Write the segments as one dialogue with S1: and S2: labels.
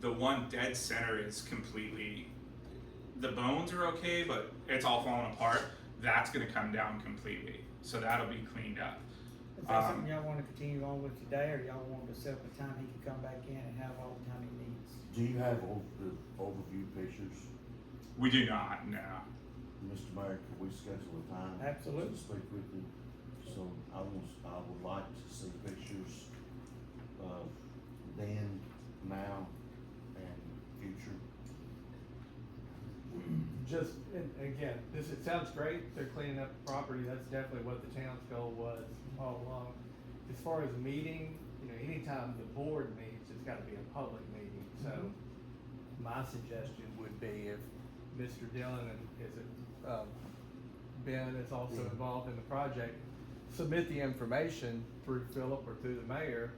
S1: the one dead center is completely. The bones are okay, but it's all falling apart. That's going to come down completely. So that'll be cleaned up.
S2: Is that something
S1: Um,
S2: y'all wanna continue on with today, or y'all want to set up a time he can come back in and have all the time he needs?
S3: Do you have all the overview pictures?
S1: We do not, no.
S3: Mr. Mayor, could we schedule a time?
S2: Absolutely.
S3: To speak with him? So I was, I would like to see pictures of then, now, and future.
S4: Just, and again, this, it sounds great, they're cleaning up the property, that's definitely what the town's goal was all along. As far as meeting, you know, anytime the board meets, it's gotta be a public meeting, so my suggestion would be if Mr. Dillon and, is it, um, Ben is also
S3: Yeah.
S4: involved in the project, submit the information through Philip or through the mayor,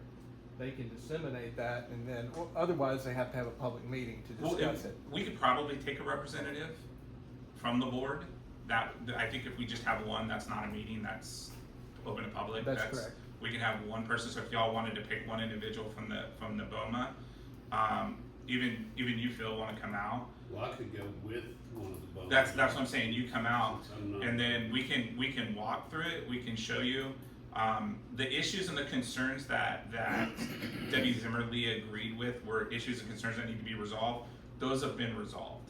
S4: they can disseminate that, and then, or otherwise, they have to have a public meeting to
S1: Well,
S4: discuss
S1: if,
S4: it.
S1: we could probably take a representative from the board. That, I think if we just have one, that's not a meeting, that's open to public.
S4: That's correct.
S1: We can have one person, so if y'all wanted to pick one individual from the, from the BOMA, um, even, even you, Phil, wanna come out?
S5: Well, I could go with one of the boats.
S1: That's, that's what I'm saying, you come out,
S5: Since I'm not-
S1: and then we can, we can walk through it, we can show you, um, the issues and the concerns that, that Debbie Zimmerly agreed with were issues and concerns that need to be resolved, those have been resolved.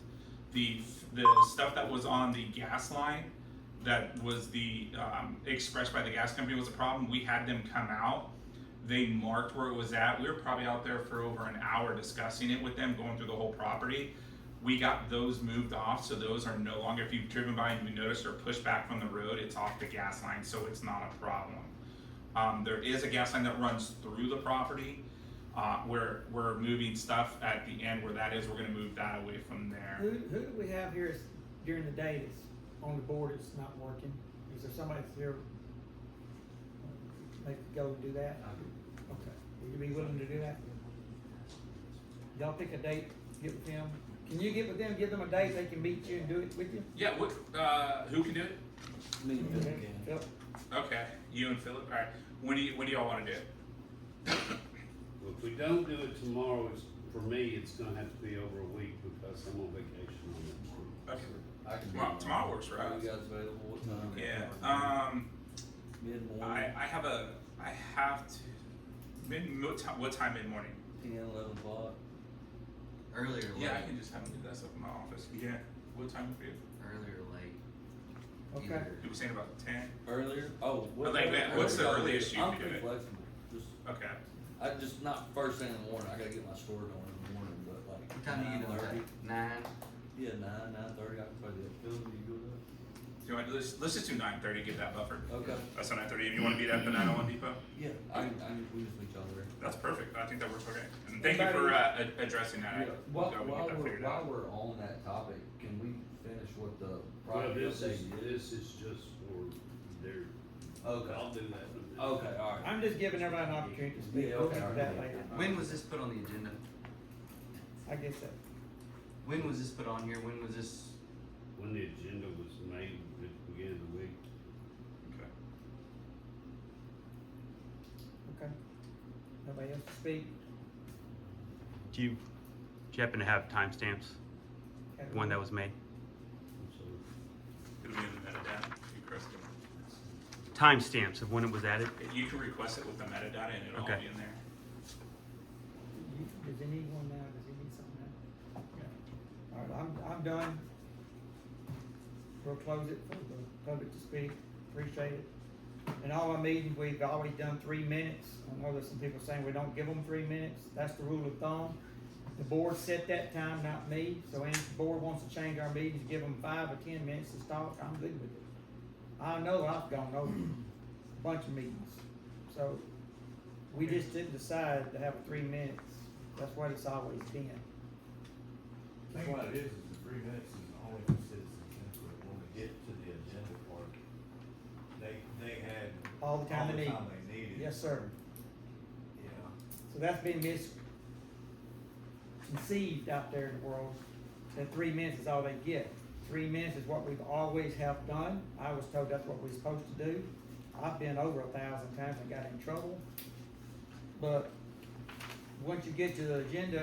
S1: The, the stuff that was on the gas line, that was the, um, expressed by the gas company was a problem, we had them come out. They marked where it was at, we were probably out there for over an hour discussing it with them, going through the whole property we got those moved off, so those are no longer, if you've driven by and you noticed or pushed back from the road, it's off the gas line, so it's not a problem. Um, there is a gas line that runs through the property, uh, where we're moving stuff at the end where that is, we're gonna move that away from
S2: Who,
S1: there.
S2: who do we have here is- during the day that's on the board that's not working? Is there somebody that's here? They could go and do that? Okay, would you be willing to do that? Y'all pick a date, get with them, can you get with them, give them a date, they can meet you and do it with you?
S1: Yeah, what, uh, who can do it?
S6: Me and Bill
S2: Okay,
S6: again.
S2: Phil,
S1: Okay, you and Philip, alright, when do you, when do y'all wanna do it?
S5: If we don't do it tomorrow, it's, for me, it's gonna have to be over a week because I'm on vacation on that
S1: Okay,
S5: month.
S6: I can be
S1: tomorrow,
S6: around.
S1: tomorrow works,
S6: Are
S1: right?
S6: you guys available? What time?
S1: Yeah, um, I,
S6: Mid-morning,
S1: I have a, I have to, mid, what time, what time mid-morning?
S6: ten, eleven o'clock. Earlier, late.
S1: Yeah, I can just have them do that stuff in my office. Yeah. What time for you?
S6: Earlier, late.
S2: okay,
S6: Either
S1: You were saying about ten?
S6: Earlier? Oh, what?
S1: Like, man, what's the
S6: earlier.
S1: earliest you
S6: I'm
S1: can do
S6: pretty
S1: it?
S6: flexible. Just,
S1: Okay.
S6: I just not first thing in the morning. I gotta get my store going in the morning, but like.
S7: What time do you get on
S6: 9:30.
S7: that? Nine.
S6: Yeah, nine, nine thirty. I can probably do it. Phil, do you go
S1: Do you want to, let's, let's just do nine thirty, give that buffer.
S6: to that? Okay.
S1: That's nine thirty, and you want to be at the nine oh one depot?
S6: Yeah, I, I, we just meet each other.
S1: That's perfect. I think that works okay. And thank you for, uh, ad- addressing that. I-
S6: Yeah, While,
S1: we can
S6: while
S1: get that
S6: we're,
S1: figured
S6: while
S1: out.
S6: we're on that topic, can we finish what the
S5: Well,
S6: project
S5: this is,
S6: update is?
S5: this is just for their,
S6: Okay,
S5: I'll do that in a minute.
S6: okay, alright.
S2: I'm just giving everybody an opportunity to speak,
S6: Yeah,
S2: we'll get
S6: okay,
S2: to
S6: all
S2: that
S6: right.
S2: later,
S7: When was this put on the agenda?
S2: I guess that,
S7: When was this put on here? When was this?
S5: When the agenda was made at the beginning of the week,
S1: Okay.
S2: okay. Nobody else to speak?
S8: Do you, do you happen to have timestamps?
S2: Okay.
S8: When that was made?
S5: I'm sorry.
S1: It'll be in the metadata. You Chris can-
S8: Timestamps of when it was added?
S1: You can request it with the metadata and it'll all
S8: Okay.
S1: be in there.
S2: You- Does he need one now, does he need something now? All right, I'm, I'm done. We'll close it for the public to speak, appreciate it. In all our meetings, we've always done three minutes, I know there's some people saying we don't give them three minutes, that's the rule of thumb. The board set that time, not me, so any board wants to change our meetings, give them five or ten minutes to talk, I'm good with it. I know I've gone over a bunch of meetings, so we just didn't decide to have three minutes, that's what it's always been.
S3: I think what it is, is the three minutes is only for citizens input, when we get to the agenda part, they, they had.
S2: All the time they need.
S3: All the time they needed.
S2: Yes, sir.
S3: Yeah.
S2: So that's been misconceived out there in the world, that three minutes is all they get. Three minutes is what we've always have done. I was told that's what we're supposed to do. I've been over a thousand times and got in trouble. But once you get to the agenda